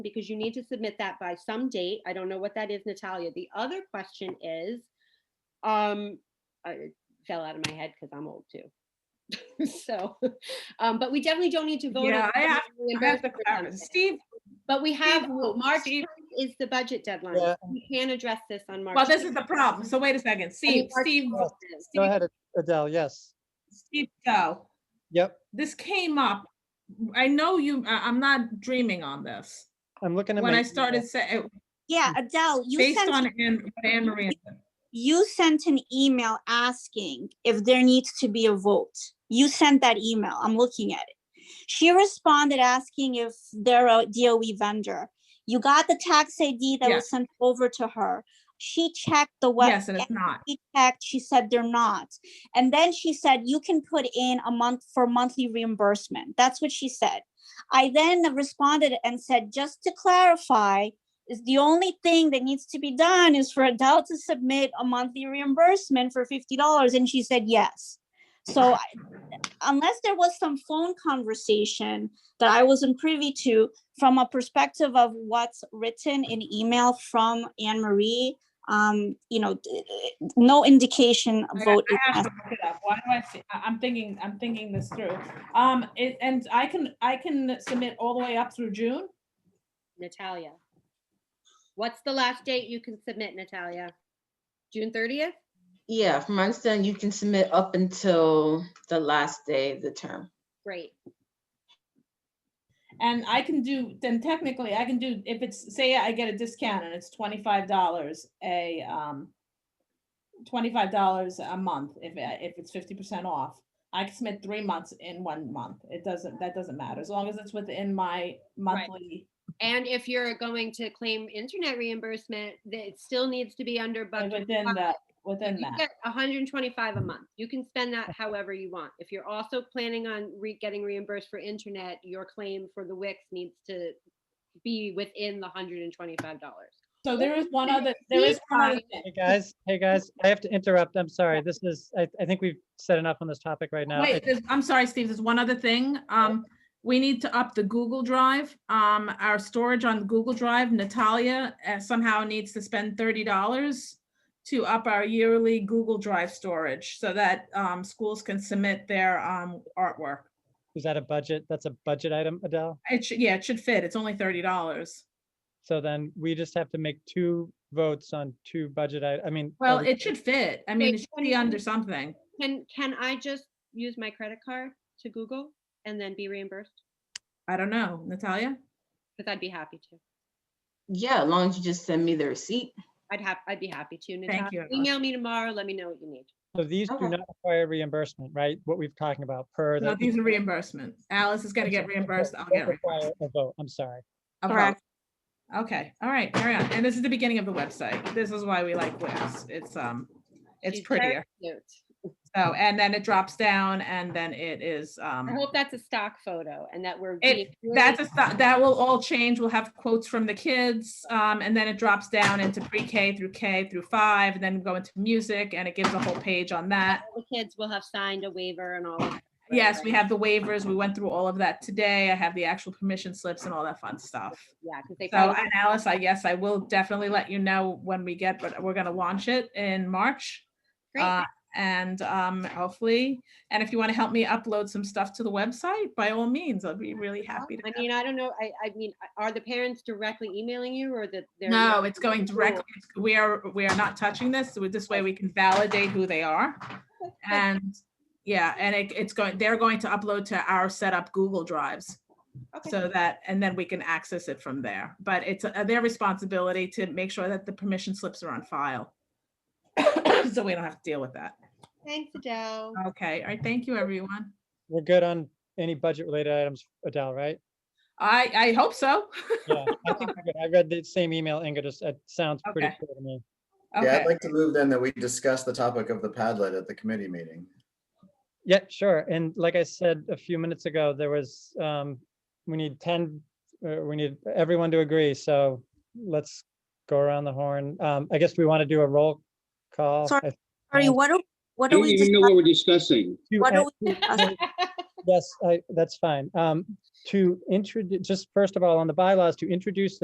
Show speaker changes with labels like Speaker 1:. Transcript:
Speaker 1: because you need to submit that by some date. I don't know what that is, Natalia. The other question is, um, I- it fell out of my head because I'm old too. So, um, but we definitely don't need to vote. on
Speaker 2: Yeah, I
Speaker 1: the
Speaker 2: have- I have to
Speaker 1: reimbursement
Speaker 2: clarify.
Speaker 1: something.
Speaker 2: Steve,
Speaker 1: But we have,
Speaker 2: Steve, will-
Speaker 1: March
Speaker 2: Steve-
Speaker 1: 10th is the budget deadline.
Speaker 3: Yeah.
Speaker 1: We can address this on March.
Speaker 2: well, this is
Speaker 1: 10th.
Speaker 2: the problem. So wait a second.
Speaker 1: I mean,
Speaker 2: Steve,
Speaker 1: March
Speaker 2: Steve,
Speaker 1: 10th is.
Speaker 2: Steve-
Speaker 3: Go ahead, Adele, yes.
Speaker 2: Steve, go.
Speaker 3: Yep,
Speaker 2: This came up. I know you, I, I'm not dreaming on this.
Speaker 3: I'm looking at my.
Speaker 2: When I
Speaker 3: email.
Speaker 2: started saying,
Speaker 4: Yeah, Adele, you
Speaker 2: Mm. based on
Speaker 4: sent,
Speaker 2: Anne, what Anne Marie, said.
Speaker 4: you sent an email asking if there needs to be a vote. You sent that email. I'm looking at it. She responded asking if they're a DOE vendor. You got the tax ID that
Speaker 2: Yeah.
Speaker 4: was sent over to her. She checked the web.
Speaker 2: yes, and it's not.
Speaker 4: she checked, she said they're not. And then she said, you can put in a month for monthly reimbursement. That's what she said. I then responded and said, just to clarify, is the only thing that needs to be done is for Adele to submit a monthly reimbursement for fifty dollars, and she said yes. So I- unless there was some phone conversation that I wasn't privy to, from a perspective of what's written in email from Anne Marie, um, you know, d- d- no indication
Speaker 2: I-
Speaker 4: vote.
Speaker 2: I
Speaker 4: is
Speaker 2: have
Speaker 4: necessary.
Speaker 2: to look it up. Why do I see, I- I'm thinking, I'm thinking this through. Um, it, and I can, I can submit all the way up through June?
Speaker 1: Natalia. What's the last date you can submit, Natalia? June 30th?
Speaker 5: Yeah, from my understanding, you can submit up until the last day of the term.
Speaker 1: Great.
Speaker 2: And I can do, then technically I can do, if it's, say I get a discount and it's twenty-five dollars a, um, twenty-five dollars a month, if, I- if it's fifty percent off, I can submit three months in one month. It doesn't, that doesn't matter, as long as it's within my monthly.
Speaker 1: And if you're going to claim internet reimbursement, that it still needs to be under
Speaker 2: and
Speaker 1: budget.
Speaker 2: Within the, within
Speaker 1: You
Speaker 2: that.
Speaker 1: get 125 a month. You can spend that however you want. If you're also planning on re, getting reimbursed for internet, your claim for the Wix needs to be within the $125.
Speaker 2: So there is one other, there is one other thing.
Speaker 3: Hey, guys, hey, guys, I have to interrupt. I'm sorry. This is, I, I think we've said enough on this topic right now.
Speaker 2: Wait, there's- I'm sorry, Steve, there's one other thing. Um, we need to up the Google Drive. Um, our storage on Google Drive, Natalia uh, somehow needs to spend thirty dollars to up our yearly Google Drive storage so that, um, schools can submit their, um, artwork.
Speaker 3: Is that a budget? That's a budget item, Adele?
Speaker 2: It should, yeah, it should fit. It's only thirty dollars.
Speaker 3: So then we just have to make two votes on two budget, I, I mean.
Speaker 2: Well,
Speaker 3: every-
Speaker 2: it should fit. I mean, it should be under something.
Speaker 1: Can, can I just use my credit card to Google and then be reimbursed?
Speaker 2: I don't know, Natalia?
Speaker 1: Because I'd be happy to.
Speaker 5: Yeah, as long as you just send me the receipt.
Speaker 1: I'd have, I'd be happy to.
Speaker 2: you,
Speaker 1: Natalia,
Speaker 2: Emma.
Speaker 1: email me tomorrow. Let me know what you need.
Speaker 3: So these do
Speaker 5: Okay.
Speaker 3: not require reimbursement, right? What we've talking about per.
Speaker 2: Oh. No,
Speaker 3: the-
Speaker 2: these are reimbursement. Alice is gonna
Speaker 3: I'm
Speaker 2: get
Speaker 3: sorry,
Speaker 2: reimbursed. I'll
Speaker 3: don't
Speaker 2: get
Speaker 3: require
Speaker 2: reimbursed.
Speaker 3: A vote, I'm sorry.
Speaker 2: A vote.
Speaker 4: Correct.
Speaker 2: Okay, all right, carry on. And this is the beginning of the website. This is why we like Wix. It's, um, it's
Speaker 1: She's very
Speaker 2: prettier.
Speaker 1: cute.
Speaker 2: So, and then it drops down and then it is,
Speaker 1: I
Speaker 2: um,
Speaker 1: hope that's a stock photo and that we're.
Speaker 2: It-
Speaker 1: being really-
Speaker 2: that's, a sto- that will all change. We'll have quotes from the kids. Um, and then it drops down into pre-K through K through five, and then go into music and it gives a whole page on that.
Speaker 1: all The kids will have signed a waiver and all of. that, right,
Speaker 2: Yes,
Speaker 1: right.
Speaker 2: we have the waivers. We went through all of that today. I have the actual permission slips and all that fun stuff.
Speaker 1: Yeah, because they
Speaker 2: So,
Speaker 1: probably,
Speaker 2: and Alice, I guess I will definitely let you know when we get, but we're gonna launch it in March.
Speaker 1: great,
Speaker 2: Uh, And um, hopefully, and if you want to help me upload some stuff to the website, by all means, I'll be really happy to.
Speaker 1: I
Speaker 2: have-
Speaker 1: mean, I don't know, I, I mean, are the parents directly emailing you or that? they're
Speaker 2: No,
Speaker 1: emailing
Speaker 2: it's
Speaker 1: you?
Speaker 2: going
Speaker 1: Cool.
Speaker 2: directly, it's- we are, we are not touching this. So this way we can validate who they are. And yeah, and it, it's going, they're going to upload to our setup Google Drives.
Speaker 1: Okay.
Speaker 2: So that, and then we can access it from there. But it's uh, their responsibility to make sure that the permission slips are on file. So we don't have to deal with that.
Speaker 1: Thanks, Adele.
Speaker 2: Okay, all right, thank you, everyone.
Speaker 3: We're good on any budget related items, Adele, right?
Speaker 2: I, I hope so.
Speaker 3: Yeah, I think we're good. I read the same email, Inga, just, it sounds pretty
Speaker 2: Okay.
Speaker 3: clear to me.
Speaker 6: Yeah,
Speaker 2: Okay,
Speaker 6: I'd like to move then that we discuss the topic of the Padlet at the committee meeting.
Speaker 3: Yeah, sure. And like I said a few minutes ago, there was, um, we need ten, uh, we need everyone to agree, so let's go around the horn. Um, I guess we want to do a roll call.
Speaker 4: Sorry,
Speaker 3: I-
Speaker 4: Sorry, what do, what
Speaker 7: I
Speaker 4: do
Speaker 7: don't
Speaker 4: we,
Speaker 7: even
Speaker 4: dis-
Speaker 7: know what we're discussing.
Speaker 3: you-
Speaker 4: what
Speaker 3: uh,
Speaker 4: do we, discuss?
Speaker 3: Yes, I, that's fine. Um, to introduce, just first of all, on the bylaws, to introduce the